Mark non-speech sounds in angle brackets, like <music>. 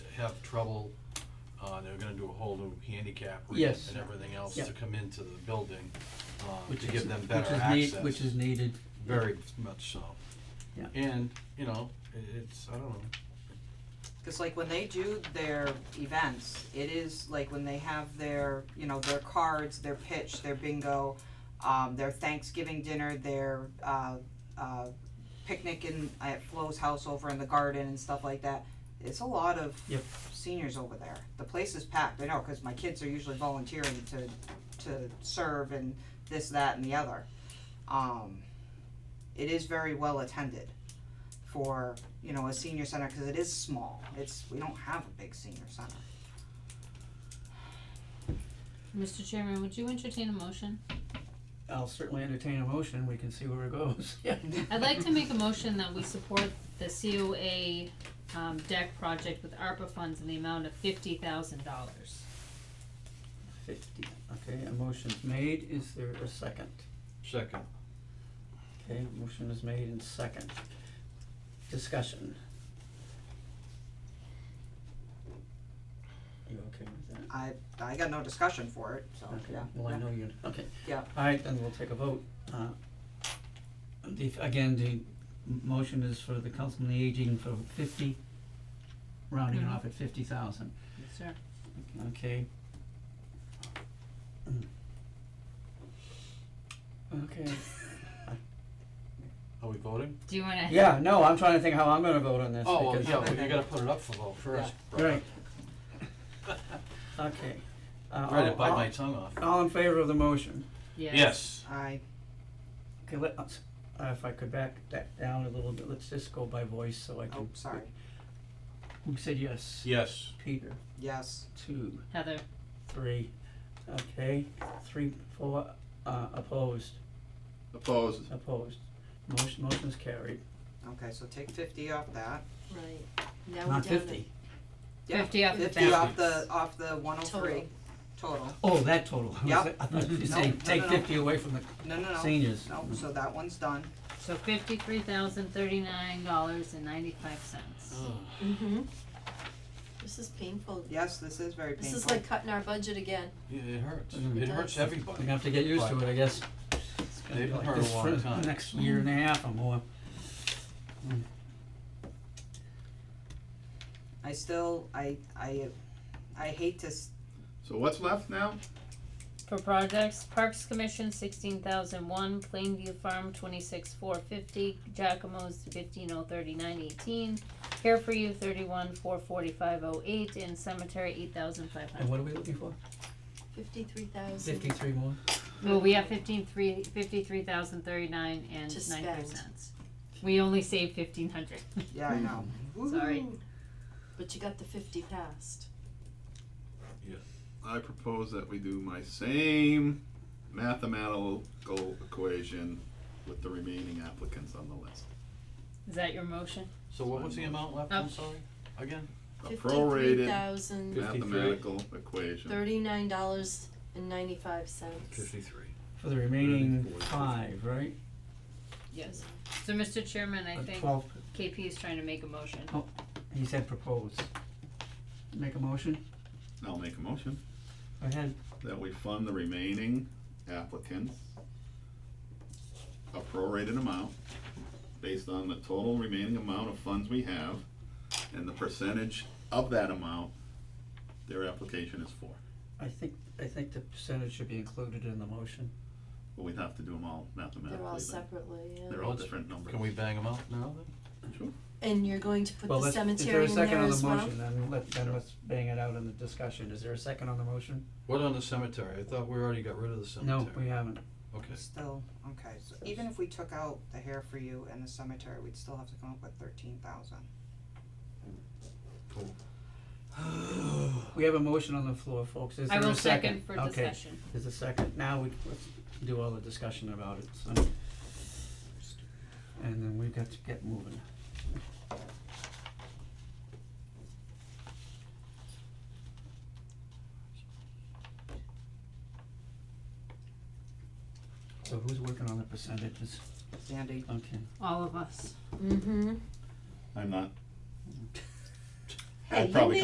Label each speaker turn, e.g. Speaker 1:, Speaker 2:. Speaker 1: have trouble, uh, they're gonna do a whole new handicap ramp
Speaker 2: Yes.
Speaker 1: and everything else
Speaker 2: Yeah.
Speaker 1: to come into the building, uh,
Speaker 2: Which
Speaker 1: to
Speaker 2: is
Speaker 1: give them
Speaker 2: which
Speaker 1: better
Speaker 2: is
Speaker 1: access.
Speaker 2: need- Which is needed.
Speaker 1: Very much so.
Speaker 2: Yeah.
Speaker 1: And, you know, i- it's, I don't know,
Speaker 3: Cause like when they do their events, it is like when they have their, you know, their cards, their pitch, their bingo, um, their Thanksgiving dinner, their, uh, uh, picnic in, at Flo's house over in the garden and stuff like that. It's a lot of
Speaker 2: Yep.
Speaker 3: seniors over there. The place is packed, I know, cause my kids are usually volunteering to, to serve and this, that and the other. Um, it is very well attended for, you know, a senior center, cause it is small, it's, we don't have a big senior center.
Speaker 4: Mr. Chairman, would you entertain a motion?
Speaker 2: I'll certainly entertain a motion, we can see where it goes, yeah.
Speaker 4: I'd like to make a motion that we support the COA um deck project with ARPA funds in the amount of fifty thousand dollars.
Speaker 2: <laughs> Fifty, okay, a motion's made, is there a second?
Speaker 1: second,
Speaker 2: Okay, motion is made and second. Discussion. You okay with that?
Speaker 3: I, I got no discussion for it, so,
Speaker 2: Okay,
Speaker 3: Oh, yeah,
Speaker 2: well, I
Speaker 3: yeah.
Speaker 2: know you, okay.
Speaker 3: Yeah.
Speaker 2: Alright, then we'll take a vote, uh, the, again, the m- motion is for the council on the aging for fifty, rounding it
Speaker 3: Mm-hmm.
Speaker 2: off at fifty thousand.
Speaker 4: Yes, sir.
Speaker 2: Okay. Okay,
Speaker 1: are we voting?
Speaker 4: Do you wanna?
Speaker 2: yeah, no, I'm trying to think how I'm gonna vote on this
Speaker 1: Oh, well,
Speaker 2: because-
Speaker 1: yeah, well, you gotta put it up for vote first,
Speaker 2: Right.
Speaker 1: Brett.
Speaker 2: Okay. Uh,
Speaker 1: Read
Speaker 2: all-
Speaker 1: it bite
Speaker 2: all-
Speaker 1: my tongue off.
Speaker 2: All in favor of the motion?
Speaker 1: Yes,
Speaker 3: I,
Speaker 2: Okay, let, us- uh, if I could back that down a little bit, let's just go by voice so I
Speaker 3: oh,
Speaker 2: can.
Speaker 3: sorry,
Speaker 2: Who said yes?
Speaker 1: yes,
Speaker 2: Peter,
Speaker 3: yes,
Speaker 2: two,
Speaker 4: Heather,
Speaker 2: three, okay, three, four, uh, opposed,
Speaker 5: Opposed.
Speaker 2: opposed. Motion, motion is carried.
Speaker 3: okay, so take fifty off that,
Speaker 6: Right, now we're down
Speaker 2: Not
Speaker 6: to.
Speaker 2: fifty.
Speaker 3: yeah,
Speaker 4: fifty off the balance.
Speaker 3: fifty off the, off the one oh three,
Speaker 6: Total.
Speaker 3: total,
Speaker 2: Oh, that total. I was-
Speaker 3: Yep.
Speaker 2: I thought you
Speaker 3: No,
Speaker 2: say
Speaker 3: no,
Speaker 2: take
Speaker 3: no, no.
Speaker 2: fifty away from the
Speaker 3: no, no, no,
Speaker 2: seniors.
Speaker 3: no, so that one's done,
Speaker 4: So fifty-three thousand thirty-nine dollars and ninety-five cents.
Speaker 6: Mm-hmm. This is painful.
Speaker 3: yes, this is very
Speaker 6: This
Speaker 3: painful.
Speaker 6: is like cutting our budget again.
Speaker 1: Yeah, it hurts,
Speaker 2: Mm.
Speaker 1: it hurts
Speaker 2: We're
Speaker 1: everybody.
Speaker 2: gonna have to get used to it, I guess. It's gonna be
Speaker 1: They've
Speaker 2: like
Speaker 1: heard a
Speaker 2: this
Speaker 1: long
Speaker 2: for
Speaker 1: time.
Speaker 2: the next year and a half or more.
Speaker 3: I still, I, I, I hate to, s-
Speaker 5: So what's left now?
Speaker 4: For projects, Parks Commission sixteen thousand one, Plainview Farm twenty-six four fifty, Giacomo's fifteen oh thirty-nine eighteen, Care for You thirty-one four forty-five oh eight, and Cemetery eight thousand five
Speaker 2: And
Speaker 4: hundred.
Speaker 2: what are we looking for?
Speaker 6: Fifty-three thousand.
Speaker 2: Fifty-three more?
Speaker 4: Well, we have fifteen three, fifty-three thousand thirty-nine and
Speaker 6: To
Speaker 4: ninety-five
Speaker 6: spend.
Speaker 4: cents. We only saved fifteen hundred. <laughs>
Speaker 3: yeah, I know,
Speaker 4: Sorry.
Speaker 3: Woo-hoo.
Speaker 6: But you got the fifty passed.
Speaker 5: I propose that we do my same mathematical equation with the remaining applicants on the list.
Speaker 4: Is that your motion?
Speaker 1: So what was the amount left,
Speaker 4: Oh.
Speaker 1: I'm sorry, again?
Speaker 5: A
Speaker 6: Fifty-three
Speaker 5: prorated
Speaker 6: thousand,
Speaker 1: 53.
Speaker 5: mathematical equation.
Speaker 6: thirty-nine dollars and ninety-five cents.
Speaker 1: Fifty-three.
Speaker 2: For the remaining
Speaker 1: Thirty-four.
Speaker 2: five, right?
Speaker 4: Yes. So, Mr. Chairman, I
Speaker 2: Uh,
Speaker 4: think
Speaker 2: Twelve,
Speaker 4: KP is trying to make a motion.
Speaker 2: he said propose. Make a motion?
Speaker 5: I'll make a motion
Speaker 2: Go ahead.
Speaker 5: that we fund the remaining applicants a prorated amount based on the total remaining amount of funds we have and the percentage of that amount their application is for.
Speaker 2: I think, I think the percentage should be included in the motion.
Speaker 5: But we'd have to do them all mathematically.
Speaker 6: They're all
Speaker 5: then.
Speaker 6: separately, yeah.
Speaker 5: They're all different numbers.
Speaker 1: Can we bang them out now then?
Speaker 6: And you're going to put
Speaker 2: Well,
Speaker 6: the
Speaker 2: let's, is
Speaker 6: cemetery
Speaker 2: there a
Speaker 6: in there
Speaker 2: second on the
Speaker 6: as well?
Speaker 2: motion? Then let, then let's bang it out in the discussion. Is there a second on the motion?
Speaker 1: What on the cemetery? I thought we already got rid of the cemetery.
Speaker 2: No, we haven't.
Speaker 3: <gasps>
Speaker 1: Okay, <gasps>
Speaker 3: still, okay, so even if we took out the hair for you and the cemetery, we'd still have to come up with thirteen thousand.
Speaker 1: cool.
Speaker 2: We have a motion on the floor, folks. Is
Speaker 4: I
Speaker 2: there
Speaker 4: will
Speaker 2: a second?
Speaker 4: second for
Speaker 2: Okay.
Speaker 4: discussion.
Speaker 2: There's a second, now we, let's do all the discussion about it, so. And then we've got to get moving. So who's working on the percentages?
Speaker 3: Sandy,
Speaker 2: Okay.
Speaker 4: All of us.
Speaker 6: Mm-hmm.
Speaker 5: I'm not.
Speaker 6: Hey,
Speaker 5: I
Speaker 6: you
Speaker 5: probably